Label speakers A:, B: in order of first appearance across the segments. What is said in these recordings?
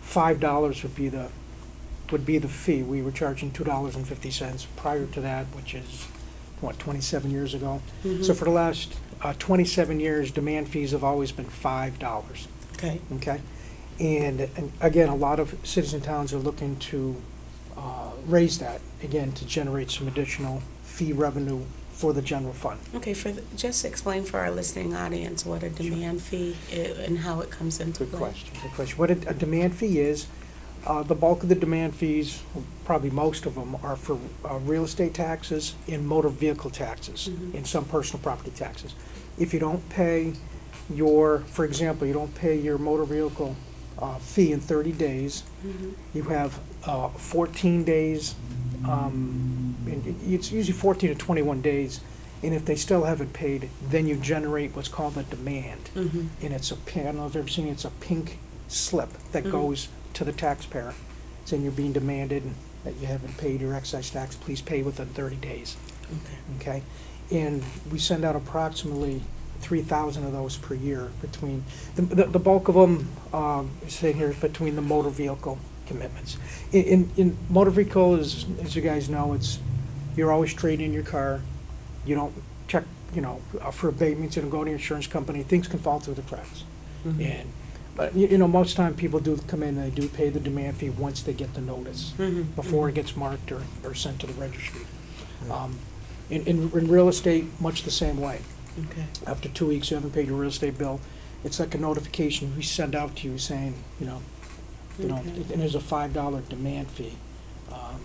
A: five dollars would be the, would be the fee. We were charging two dollars and fifty cents prior to that, which is, what, twenty-seven years ago?
B: Mm-hmm. Mhm.
A: So for the last uh, twenty-seven years, demand fees have always been five dollars,
B: Okay,
A: okay? And, and again, a lot of citizen towns are looking to uh, raise that, again, to generate some additional fee revenue for the general fund.
B: okay, for, the- just explain for our listening audience what a demand fee i- and how it comes into
A: Good
B: play.
A: question, good question. What a, a demand fee is, uh, the bulk of the demand fees, probably most of them, are for, uh, real estate taxes and motor vehicle taxes,
B: Mhm.
A: and some personal property taxes. If you don't pay your, for example, you don't pay your motor vehicle, uh, fee in thirty days,
B: Mhm.
A: you have, uh, fourteen days, um, and it- it's usually fourteen to twenty-one days, and if they still haven't paid, then you generate what's called a demand
B: Mhm.
A: and it's a pink, I don't know if you've ever seen it, it's a pink slip that
B: Mhm.
A: goes to the taxpayer. Saying you're being demanded that you haven't paid your excise tax, please pay within thirty days,
B: Okay,
A: okay? And we send out approximately three thousand of those per year between, the, the the bulk of them, um, sitting here is between the motor vehicle commitments. In, in, in motor vehicle is, as you guys know, it's, you're always trading your car, you don't check, you know, uh, for abatements, you don't go to your insurance company, things can fall through the cracks.
B: Mhm.
A: And, but, you, you know, most time people do come in and they do pay the demand fee once they get the notice,
B: Mhm.
A: Mm-hmm. before it gets marked or, or sent to the registry. Um, in, in, in real estate, much the same way.
B: Mm-hmm. Okay,
A: After two weeks, you haven't paid your real estate bill, it's like a notification we send out to you saying, you know, you know,
B: Okay.
A: and there's a five dollar demand fee, um,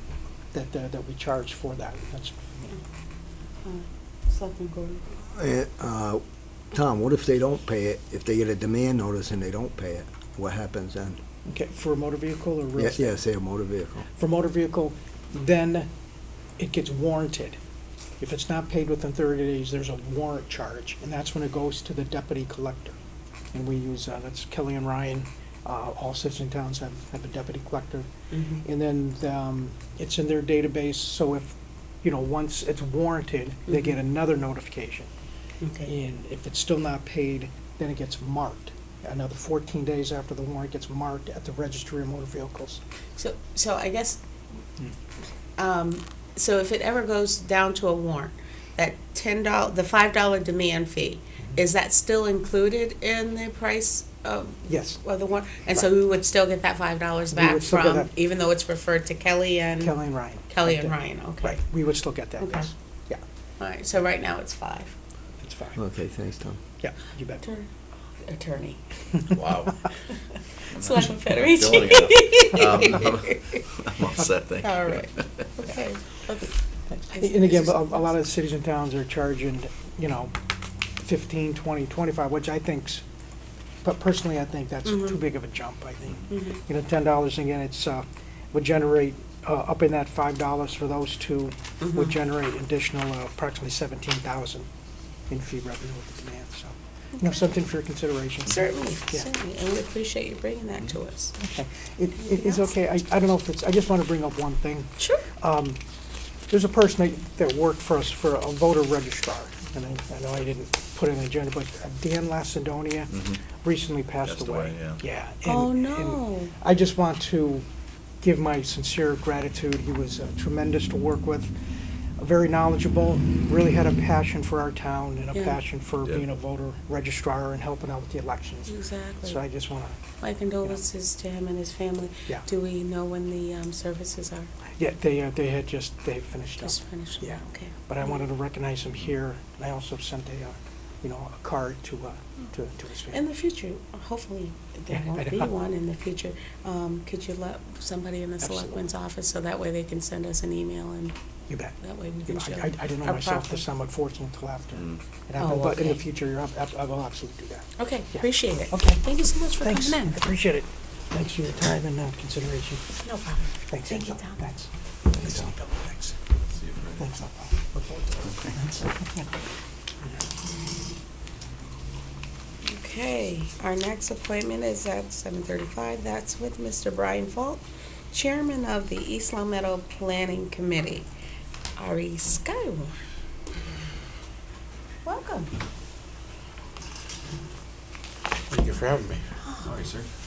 A: that, that, that we charge for that. That's,
B: Selectman Gordon.
C: Eh, uh, Tom, what if they don't pay it, if they get a demand notice and they don't pay it, what happens then?
A: okay, for a motor vehicle or real
C: Yeah,
A: estate?
C: yeah, say a motor vehicle.
A: for motor vehicle, then it gets warranted. If it's not paid within thirty days, there's a warrant charge, and that's when it goes to the deputy collector. And we use, uh, that's Kelly and Ryan, uh, all citizen towns have, have a deputy collector.
B: Mhm.
A: And then, um, it's in their database, so if, you know, once it's warranted, they get
B: Mhm.
A: another notification.
B: Okay,
A: And if it's still not paid, then it gets marked. Another fourteen days after the warrant gets marked at the registry of motor vehicles.
B: so, so I guess,
A: Hmm.
B: um, so if it ever goes down to a warrant, that ten dollar, the five dollar demand fee,
A: Mm-hmm.
B: is that still included in the price of
A: Yes.
B: Well, the one, and so we would still get that five dollars
A: We would
B: back
A: still get
B: from,
A: that.
B: even though it's referred to Kelly and,
A: Kelly and Ryan.
B: Kelly and
A: Okay.
B: Ryan, okay.
A: Right, we would still get that,
B: Okay.
A: yes. Yeah,
B: Alright, so right now it's five.
A: that's fine.
C: Okay, thanks, Tom.
A: Yeah, you bet.
B: Attorney.
D: Wow.
B: Selectman
D: Killing
B: Federici.
D: it. Um, I'm upset, thank you.
B: Alright, okay.
A: And again, a a lot of cities and towns are charging, you know, fifteen, twenty, twenty-five, which I think's, but personally, I think that's
B: Mhm.
A: too big of a jump, I think.
B: Mhm.
A: You know, ten dollars, again, it's, uh, would generate, uh, up in that five dollars for those two, would
B: Mhm.
A: generate additional uh, approximately seventeen thousand in fee revenue with the demand, so. You know,
B: Okay.
A: something for your consideration.
B: Certainly,
A: Yeah.
B: certainly, and we appreciate you bringing that to us.
A: Okay. It, it is
B: Anything else?
A: okay, I, I don't know if it's, I just want to bring up one thing.
B: Sure.
A: Um, There's a person that, that worked for us for a voter registrar, and I, I know I didn't put it on the agenda, but Dan Lacedonia
D: Mhm.
A: recently passed
D: Passed
A: away.
D: away, yeah.
A: and-
B: Oh,
A: and
B: no.
A: I just want to give my sincere gratitude. He was uh, tremendous to work with, very knowledgeable, really had a passion for our town and a
B: Yeah.
A: passion for
D: Yeah.
A: being a voter registrar and helping out with the elections. So I
B: Exactly.
A: just want to
B: My condolences to him and his family.
A: Yeah.
B: Do we know when the, um, services are?
A: Yeah, they, uh, they had just, they had finished up,
B: Just finished?
A: Yeah.
B: Okay.
A: but I wanted to recognize him here, and I also sent a, uh, you know, a card to, uh, to, to his
B: In
A: family.
B: the future, hopefully, there
A: Yeah, I
B: won't be
A: know.
B: one in the future. Um, Could you let somebody in the
A: Absolutely.
B: selectman's office, so that way they can send us an email and
A: You bet.
B: that way we
A: You
B: can
A: know,
B: show?
A: I, I I didn't know
B: our
A: myself
B: proper-
A: this, I'm unfortunate till after.
D: Mm.
A: It happened,
B: Oh,
A: But in the
B: okay.
A: future, you're ab- ab- I will absolutely do that.
B: Okay,
A: Yeah.
B: appreciate it.
A: Okay.
B: Thank you so much for
A: Thanks,
B: coming in.
A: appreciate it. Thanks for your time and uh, consideration.
B: No problem.
A: Thanks.
B: Thank you,
A: Angela.
B: Tom.
A: Thanks. Thanks, Angela. Thanks.
D: See you Friday.
A: Thanks, Angela. Look forward to it. Thanks.
B: Okay, our next appointment is at seven thirty-five. That's with Mr. Brian Fault, Chairman of the East Long Meadow Planning Committee, RE Skywarn. Welcome.
E: Thank you for having me.
D: Sorry, sir.